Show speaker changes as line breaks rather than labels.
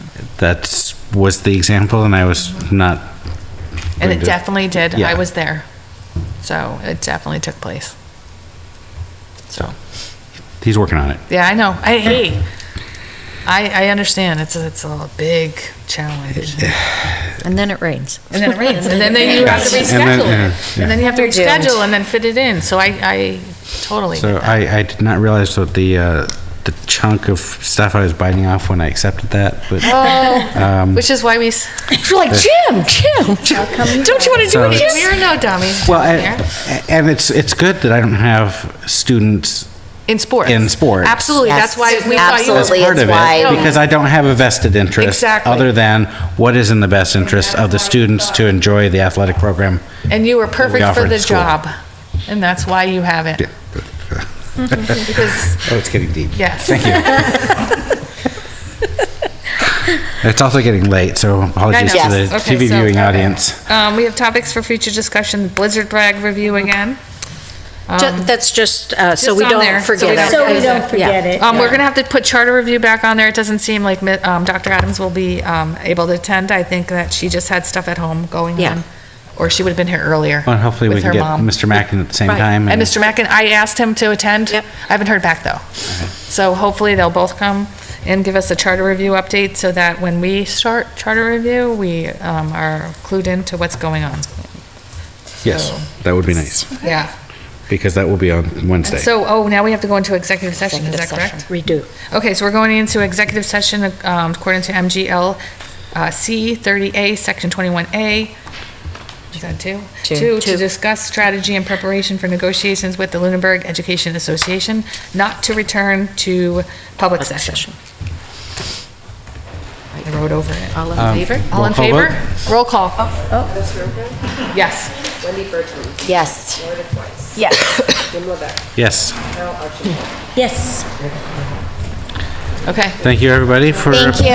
That's, was the example, and I was not,
And
They
it
did.
definitely did. I
Yeah.
was there. So it definitely took place. So,
he's working on it.
yeah, I know. I, hey, I, I understand. It's a, it's a big challenge.
And then it rains.
And then it rains. And then they- you have to
And then-
reschedule
yeah,
it.
yeah.
And then you have to
You're doomed.
reschedule and then fit it in. So I, I totally.
So I, I did not realize that the, uh, the chunk of stuff I was biting off when I accepted that, but.
Oh.
um,
Which is why we, s-
You're like, Jim, Jim, don't you want to do
So
it,
it's-
we
Jim?
are no dummies.
Well,
here.
and, and it's, it's good that I don't have students
In sports.
in sports.
Absolutely. That's why we thought you
as
were.
Absolutely,
part
it's
of
why
it,
we-
because I don't have a vested interest
Exactly.
other than what is in the best interest of the students to enjoy the athletic program.
And you were perfect for
offered
the
school.
job. And that's why you have it. Because,
Oh, it's getting deep.
yes.
It's also getting late, so apologies
I
to
know.
the
Yes. Okay,
TV
so-
viewing
okay.
audience.
Um, we have topics for future discussion, Blizzard brag review again.
Ju- That's just, uh, so
Just
we
on there,
don't
so we
forget
don't
it.
So we
Yeah.
don't forget it.
Um, we're gonna have to put charter review back on there. It doesn't seem like, mi- um, Dr. Adams will be, um, able to attend. I think that she just had stuff at home going
Yeah.
on. Or she would've been here earlier.
Well, hopefully we
with
can
her
get
mom.
Mr. Mackin at the same
Right.
time.
And Mr. Mackin, I asked him to attend.
Yep.
I haven't heard back, though. So hopefully they'll both come and give us a charter review update so that when we start charter review, we um, are clued into what's going on.
Yes,
So,
that would be nice,
Yeah.
because that will be on Wednesday.
So, oh, now we have to go into executive session, is that
Executive
correct?
session. We do.
Okay, so we're going into executive session um, according to MGL uh, C 30A, Section 21A. Is that two? To
Two. Two.
discuss strategy and preparation for negotiations with the Lunenburg Education Association, not to return to public session. I wrote over it.
All in favor? Oh,
All in
Um, roll call
favor? Roll call. Yes.
Yes.
Yes,
Yes.
Okay.
thank you, everybody, for
Thank you.